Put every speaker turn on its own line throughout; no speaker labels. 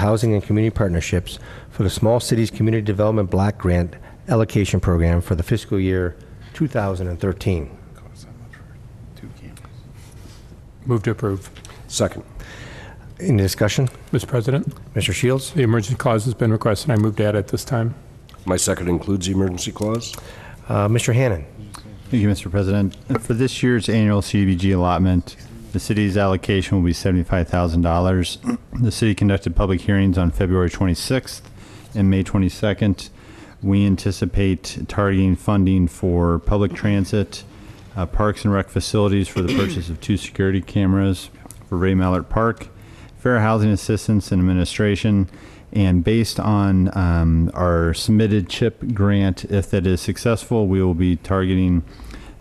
Housing and Community Partnerships for the Small Cities Community Development Block Grant Allocation Program for the fiscal year 2013.
Costs that much for two cameras.
Move to approve.
Second.
Any discussion?
Mr. President,
Mr. Shields?
the emergency clause has been requested. I move to add it this time.
My second includes the emergency clause.
Uh, Mr. Hannan?
Thank you, Mr. President. For this year's annual CDBG allotment, the city's allocation will be $75,000. The city conducted public hearings on February 26th and May 22nd. We anticipate targeting funding for public transit, uh, parks and rec facilities for the purchase of two security cameras for Ray Mallard Park, fair housing assistance and administration. And based on um, our submitted CHIP grant, if that is successful, we will be targeting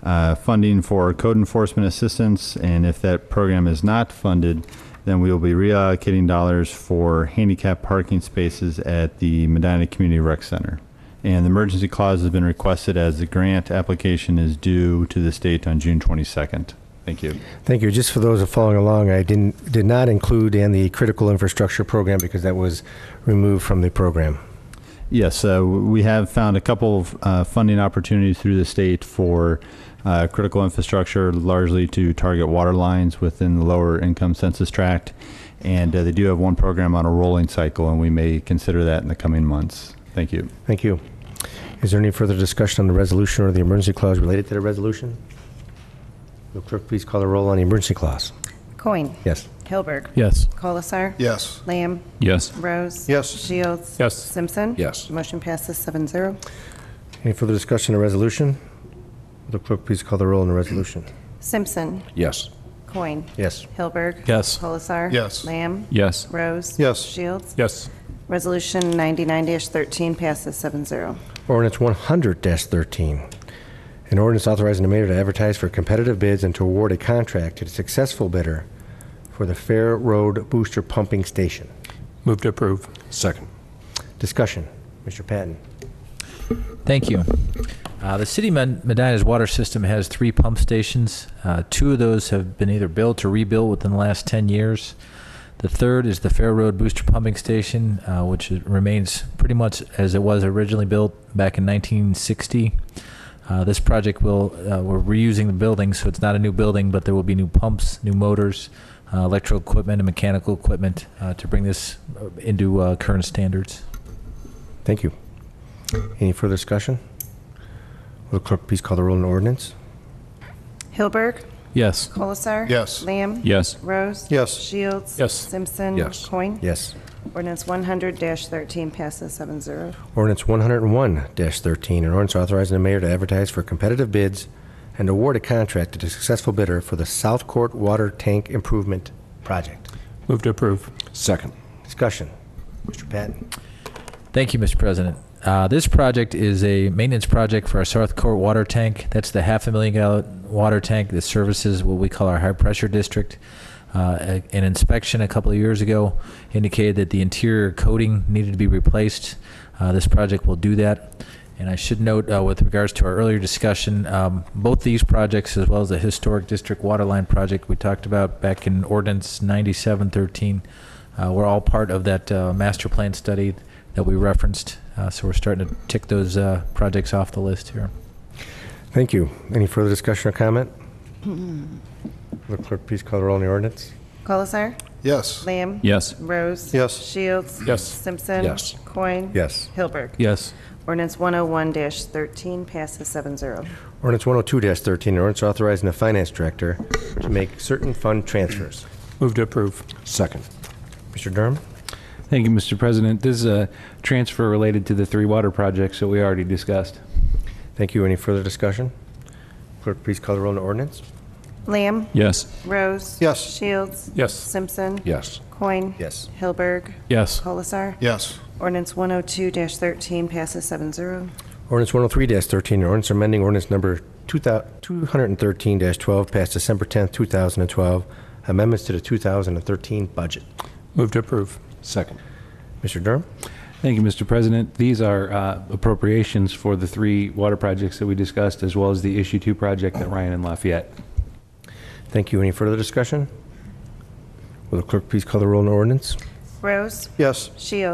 uh, funding for code enforcement assistance. And if that program is not funded, then we will be reallocating dollars for handicap parking spaces at the Medina Community Rec Center. And the emergency clause has been requested as the grant application is due to the state on June 22nd. Thank you.
Thank you. Just for those who are following along, I didn't, did not include in the critical infrastructure program because that was removed from the program.
Yes, uh, we have found a couple of uh, funding opportunities through the state for uh, critical infrastructure, largely to target water lines within the lower income census tract. And uh, they do have one program on a rolling cycle, and we may consider that in the coming months. Thank you.
Thank you. Is there any further discussion on the resolution or the emergency clause related to the resolution? Will clerk please call the roll on the emergency clause?
Coin.
Yes.
Hilberg.
Yes.
Colasar.
Yes.
Lamb.
Yes.
Rose.
Yes.
Shields.
Yes.
Simpson.
Yes.
Motion passes seven zero.
Any further discussion on the resolution? Will clerk please call the roll on the resolution?
Simpson.
Yes.
Coin.
Yes.
Hilberg.
Yes.
Colasar.
Yes.
Lamb.
Yes.
Rose.
Yes.
Shields.
Yes.
Resolution 99-13 passes seven zero.
Ordinance 100-13. An ordinance authorizing the mayor to advertise for competitive bids and to award a contract to the successful bidder for the Fair Road Booster Pumping Station.
Move to approve.
Second.
Discussion. Mr. Patton.
Thank you. Uh, the city of Med- Medina's water system has three pump stations. Uh, two of those have been either built or rebuilt within the last 10 years. The third is the Fair Road Booster Pumping Station, uh, which is- remains pretty much as it was originally built back in 1960. Uh, this project will, uh, we're reusing the building, so it's not a new building, but there will be new pumps, new motors, uh, electrical equipment, and mechanical equipment uh, to bring this uh, into uh, current standards.
Thank you. Any further discussion? Will the clerk please call the roll on the ordinance?
Hilberg.
Yes.
Colasar.
Yes.
Lamb.
Yes.
Rose.
Yes.
Shields.
Yes.
Simpson.
Yes.
Coin.
Yes.
Ordinance 100-13 passes seven zero.
Ordinance 101-13, an ordinance authorizing the mayor to advertise for competitive bids and award a contract to the successful bidder for the South Court Water Tank Improvement Project.
Move to approve.
Second.
Discussion. Mr. Patton.
Thank you, Mr. President. Uh, this project is a maintenance project for our South Court water tank. That's the half a million gallon water tank that services what we call our high pressure district. Uh, a- an inspection a couple of years ago indicated that the interior coating needed to be replaced. Uh, this project will do that. And I should note, uh, with regards to our earlier discussion, um, both these projects, as well as the historic district water line project we talked about back in ordinance 9713, uh, were all part of that uh, master plan study that we referenced. Uh, so we're starting to tick those uh, projects off the list here.
Thank you. Any further discussion or comment? Will the clerk please call the roll on the ordinance?
Colasar.
Yes.
Lamb.
Yes.
Rose.
Yes.
Shields.
Yes.
Simpson.
Yes.
Coin.
Yes.
Hilberg.
Yes.
Ordinance 101-13 passes seven zero.
Ordinance 102-13, an ordinance authorizing the finance director to make certain fund transfers.
Move to approve.
Second.
Mr. Durham?
Thank you, Mr. President. This is a transfer related to the three water projects that we already discussed.
Thank you. Any further discussion? Clerk, please call the roll on the ordinance?
Lamb.
Yes.
Rose.
Yes.
Shields.
Yes.
Simpson.
Yes.
Coin.
Yes.
Hilberg.
Yes.
Colasar.
Yes.
Ordinance 102-13 passes seven zero.
Ordinance 103-13, an ordinance amending ordinance number 213-12 passed December 10th, 2012, amendments to the 2013 budget.
Move to approve.
Second.
Mr. Durham?
Thank you, Mr. President. These are uh, appropriations for the three water projects that we discussed, as well as the Issue 2 project that Ryan and Lafayette.
Thank you. Any further discussion? Will the clerk please call the roll on the ordinance?
Rose?
Yes.
Shields?